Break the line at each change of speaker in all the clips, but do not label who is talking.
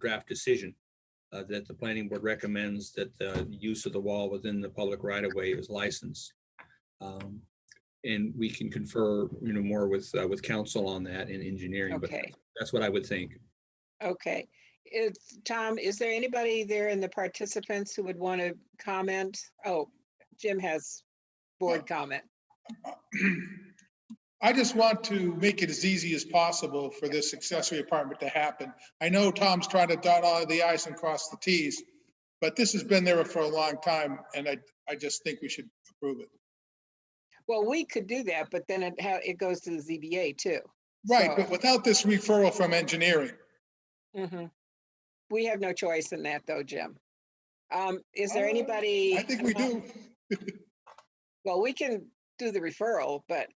draft decision uh, that the planning board recommends that the use of the wall within the public right of way is licensed. Um, And we can confer, you know, more with, uh, with council on that and engineering, but
Okay,
that's what I would think.
okay. It's, Tom, is there anybody there in the participants who would want to comment? Oh, Jim has board comment.
I just want to make it as easy as possible for this accessory apartment to happen. I know Tom's trying to dot all the i's and cross the t's, but this has been there for a long time, and I, I just think we should approve it.
Well, we could do that, but then it, ha- it goes to the ZBA too.
Right,
So-
but without this referral from engineering,
Mhm. We have no choice in that though, Jim. Um, is there
Uh,
anybody?
I think we
among-
do.
Well, we can do the referral, but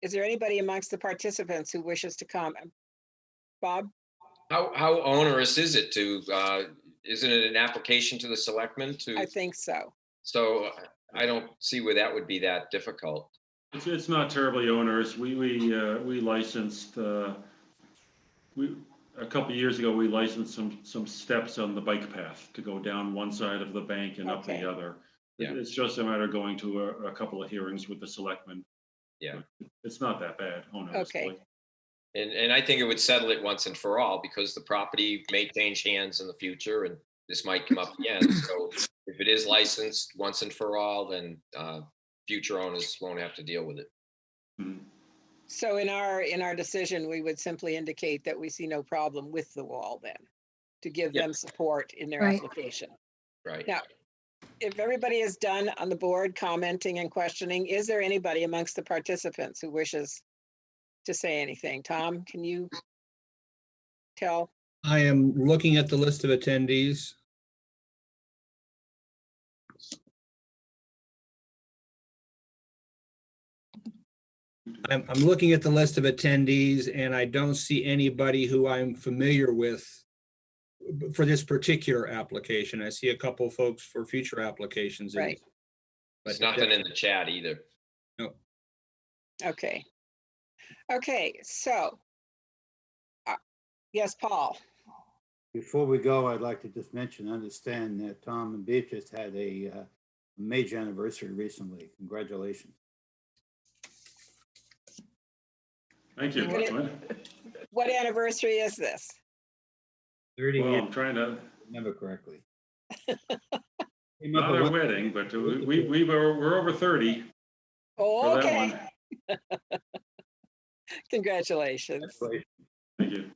is there anybody amongst the participants who wishes to comment? Bob?
How, how onerous is it to, uh, isn't it an application to the selectmen
I
to,
think so.
so I don't see where that would be that difficult.
It's, it's not terribly onerous. We, we, uh, we licensed, uh, we, a couple of years ago, we licensed some, some steps on the bike path to go down one side of the bank and up
Okay.
the other.
Yeah.
It- It's just a matter of going to a, a couple of hearings with the selectmen.
Yeah.
It's not that bad,
Okay.
honestly.
And, and I think it would settle it once and for all because the property may change hands in the future and this might come up again. So if it is licensed once and for all, then, uh, future owners won't have to deal with it.
mm-hmm.
So in our, in our decision, we would simply indicate that we see no problem with the wall then, to give
Yeah.
them support in their
Right.
application.
Right.
Yeah. If everybody is done on the board commenting and questioning, is there anybody amongst the participants who wishes to say anything? Tom, can you tell?
I am looking at the list of attendees. I'm, I'm looking at the list of attendees and I don't see anybody who I'm familiar with for this particular application. I see a couple folks for future applications. and-
Right.
There's
But
nothing in the chat either.
Okay. Okay, so. uh, Yes, Paul,
Before we go, I'd like to just mention, understand that Tom and Beatrice had a uh, major anniversary recently. Congratulations.
Thank you.
Okay. what anniversary is this?
Thirty,
Well,
years,
I'm trying to,
if I remember correctly. Came up
not
with
our
one-
wedding, but we, we, we were- we're over 30 for that
Okay,
one.
congratulations.
Thank you.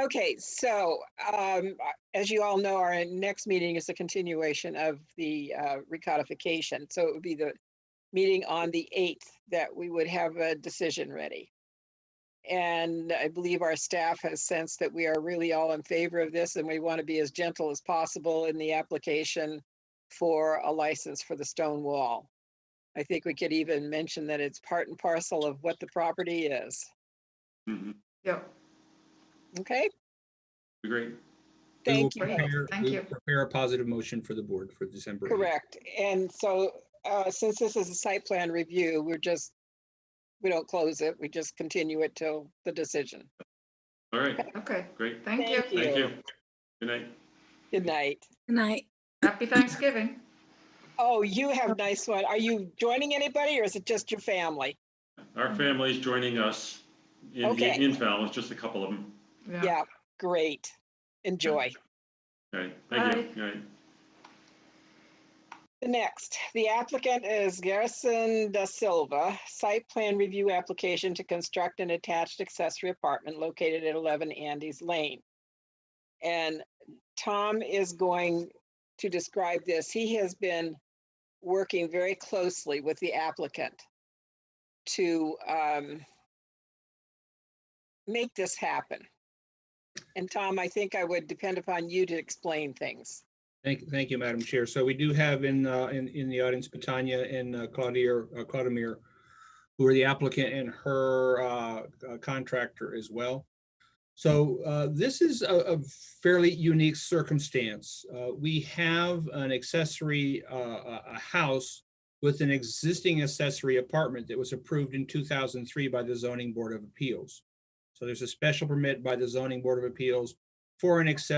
Okay, so um, as you all know, our next meeting is a continuation of the uh, recodification. So it would be the meeting on the 8th that we would have a decision ready. And I believe our staff has sensed that we are really all in favor of this and we want to be as gentle as possible in the application for a license for the stone wall. I think we could even mention that it's part and parcel of what the property is.
Mhm.
Okay,
Great.
we will
thank you. both.
prepare-
Thank
we will
you.
Prepare a positive motion for the board for December. eighth.
Correct. And so, uh, since this is a site plan review, we're just, we don't close it, we just continue it till the decision.
All right,
Okay,
great.
thank you.
Thank
Thank
you.
you. Good night.
Good night.
Good night.
Happy Thanksgiving.
Oh, you have nice one. Are you joining anybody or is it just your family?
Our family's joining us in,
Okay.
in Falmouth, just a couple of them.
Yeah, great. Enjoy.
All right, thank you. All right.
The next, the applicant is Garrison Da Silva, site plan review application to construct an attached accessory apartment located at 11 Andes Lane. And Tom is going to describe this. He has been working very closely with the applicant to um, make this happen. And Tom, I think I would depend upon you to explain things.
Thank, thank you, Madam Chair. So we do have in, uh, in, in the audience, Patania and uh, Claudia, uh, Claudemir, who are the applicant and her, uh, uh, contractor as well. So, uh, this is a, a fairly unique circumstance. Uh, we have an accessory, uh, a, a house with an existing accessory apartment that was approved in two thousand three by the zoning board of appeals. So there's a special permit by the zoning board of appeals for an accessory